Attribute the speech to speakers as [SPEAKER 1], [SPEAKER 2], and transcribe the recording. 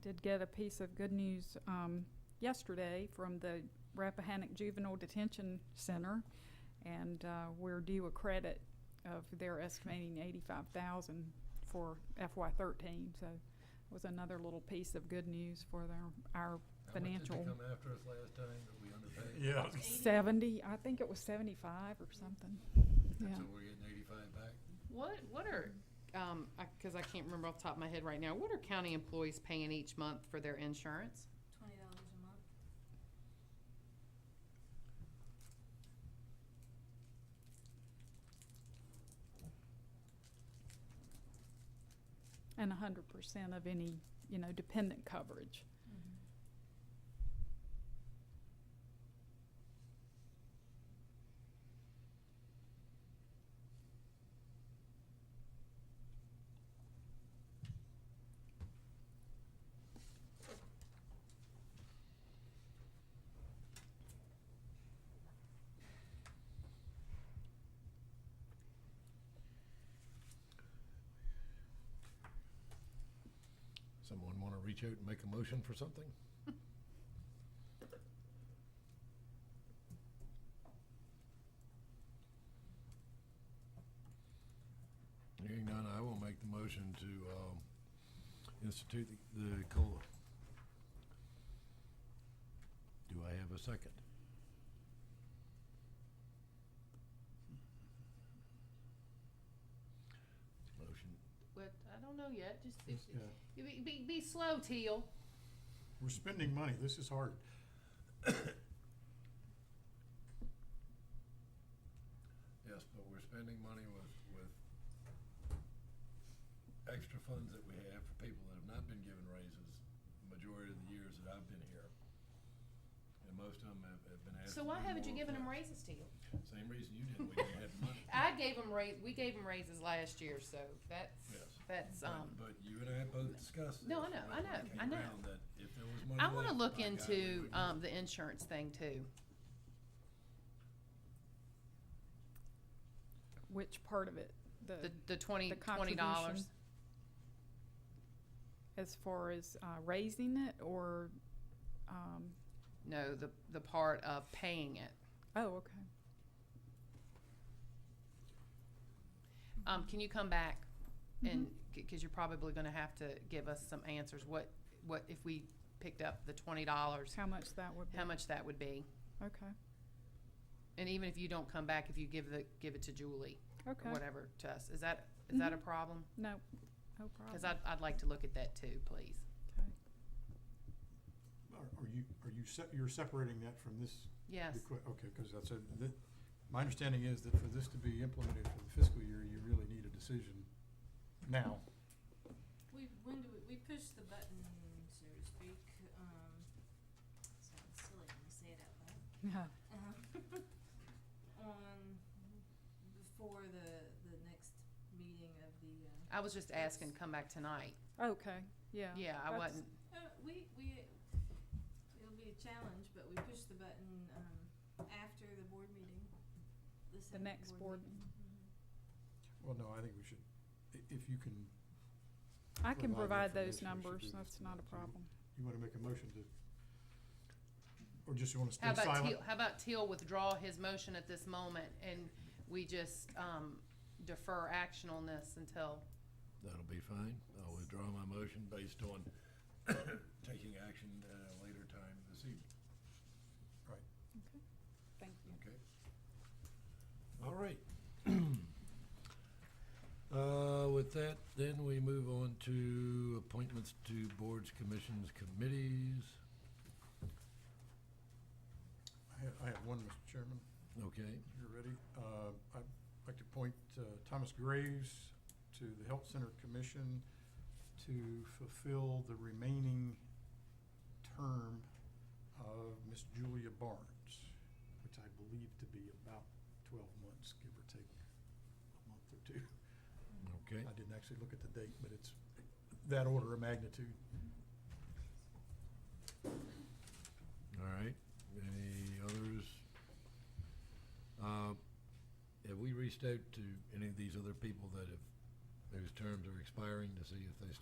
[SPEAKER 1] did get a piece of good news um, yesterday from the Rappahannock Juvenile Detention Center, and uh, we're due a credit of their estimating eighty-five thousand for FY thirteen, so it was another little piece of good news for their, our
[SPEAKER 2] How
[SPEAKER 1] Financial.
[SPEAKER 2] much did they come after us last time that we underpaid?
[SPEAKER 3] Yeah.
[SPEAKER 1] seventy, I think it was seventy-five or something, yeah.
[SPEAKER 2] So we're getting eighty-five back?
[SPEAKER 4] What, what are, um, I, cause I can't remember off the top of my head right now, what are county employees paying each month for their insurance?
[SPEAKER 5] Twenty dollars a month.
[SPEAKER 1] And hundred percent of any, you know, dependent coverage.
[SPEAKER 2] Someone wanna reach out and make a motion for something? Hearing none, I will make the motion to, um, institute the, the COLA. Do I have a second? Motion
[SPEAKER 4] Mm-hmm. What, I don't know yet, just,
[SPEAKER 3] It's, uh,
[SPEAKER 4] be, be, be slow, Teal.
[SPEAKER 3] We're spending money, this is hard.
[SPEAKER 2] Yes, but we're spending money with, with extra funds that we have for people that have not been given raises the majority of the years that I've been here. And most of them have, have been asked.
[SPEAKER 4] So
[SPEAKER 2] to
[SPEAKER 4] why
[SPEAKER 2] do
[SPEAKER 4] haven't you
[SPEAKER 2] more
[SPEAKER 4] given
[SPEAKER 2] for-
[SPEAKER 4] them raises, Teal?
[SPEAKER 2] Same reason you didn't, we didn't have money.
[SPEAKER 4] I gave them raise, we gave them raises last year, so that's,
[SPEAKER 2] Yes.
[SPEAKER 4] that's,
[SPEAKER 2] But-
[SPEAKER 4] um,
[SPEAKER 2] But you and I both discussed this.
[SPEAKER 4] No, I know, I
[SPEAKER 2] when we
[SPEAKER 4] know,
[SPEAKER 2] came
[SPEAKER 4] I know.
[SPEAKER 2] around That if there was money.
[SPEAKER 4] I wanna
[SPEAKER 2] left,
[SPEAKER 4] look
[SPEAKER 2] by God, we
[SPEAKER 4] into,
[SPEAKER 2] would do
[SPEAKER 4] um,
[SPEAKER 2] it.
[SPEAKER 4] the insurance thing too.
[SPEAKER 1] Which part of it?
[SPEAKER 4] The,
[SPEAKER 1] The,
[SPEAKER 4] the twenty,
[SPEAKER 1] the
[SPEAKER 4] twenty dollars.
[SPEAKER 1] contribution? as far as uh, raising it or, um,
[SPEAKER 4] No, the, the part of paying it.
[SPEAKER 1] oh, okay.
[SPEAKER 4] Um, can you come back
[SPEAKER 1] Mm-hmm.
[SPEAKER 4] and, because you're probably gonna have to give us some answers, what, what if we picked up the twenty dollars,
[SPEAKER 1] How much that would be?
[SPEAKER 4] how much that would be?
[SPEAKER 1] Okay,
[SPEAKER 4] And even if you don't come back, if you give the, give it to Julie or
[SPEAKER 1] okay. Mm-hmm.
[SPEAKER 4] whatever to us, is that, is that a problem?
[SPEAKER 1] No, no
[SPEAKER 4] Cause
[SPEAKER 1] problem.
[SPEAKER 4] I'd, I'd like to look at that too, please.
[SPEAKER 1] Okay.
[SPEAKER 3] Are, are you, are you, se- you're separating that from this
[SPEAKER 4] Yes,
[SPEAKER 3] request? Okay, because that's a, that, my understanding is that for this to be implemented for the fiscal year, you really need a decision now.
[SPEAKER 5] We, when do we, we push the button, so to speak, um, sounds silly when I say it out
[SPEAKER 1] Yeah.
[SPEAKER 5] loud. Um, On, before the, the next meeting of the, uh,
[SPEAKER 4] I was just asking, come back tonight.
[SPEAKER 1] Okay, yeah.
[SPEAKER 4] Yeah, I
[SPEAKER 1] that's-
[SPEAKER 4] wasn't,
[SPEAKER 5] Uh, we, we, it'll be a challenge, but we push the button, um, after the board meeting.
[SPEAKER 1] The
[SPEAKER 5] second
[SPEAKER 1] next board,
[SPEAKER 5] meeting.
[SPEAKER 3] Well, no, I think we should, i- if you can,
[SPEAKER 1] I can provide
[SPEAKER 3] Provide the
[SPEAKER 1] those
[SPEAKER 3] information, we should
[SPEAKER 1] numbers,
[SPEAKER 3] do this
[SPEAKER 1] that's not a
[SPEAKER 3] tonight, too.
[SPEAKER 1] problem.
[SPEAKER 3] you want to make a motion to, or just you want to
[SPEAKER 4] how
[SPEAKER 3] stay
[SPEAKER 4] about
[SPEAKER 3] silent?
[SPEAKER 4] Teal, how about Teal withdraw his motion at this moment and we just, um, defer action on this until um,
[SPEAKER 2] That'll be fine. I'll withdraw my motion based on taking action at a later time this evening.
[SPEAKER 1] Thank you.
[SPEAKER 2] Okay. All right. Uh, with that, then we move on to appointments to boards, commissions, committees.
[SPEAKER 3] I have, I have one, Mr. Chairman.
[SPEAKER 2] Okay,
[SPEAKER 3] If you're ready, uh, I'd like to appoint uh, Thomas Graves to the Health Center Commission to fulfill the remaining term of Miss Julia Barnes, which I believe to be about twelve months, give or take a month or two.
[SPEAKER 2] okay.
[SPEAKER 3] I didn't actually look at the date, but it's that order of magnitude.
[SPEAKER 2] All right. Any others? Uh, have we reached out to any of these other people that have, whose terms are expiring to see if they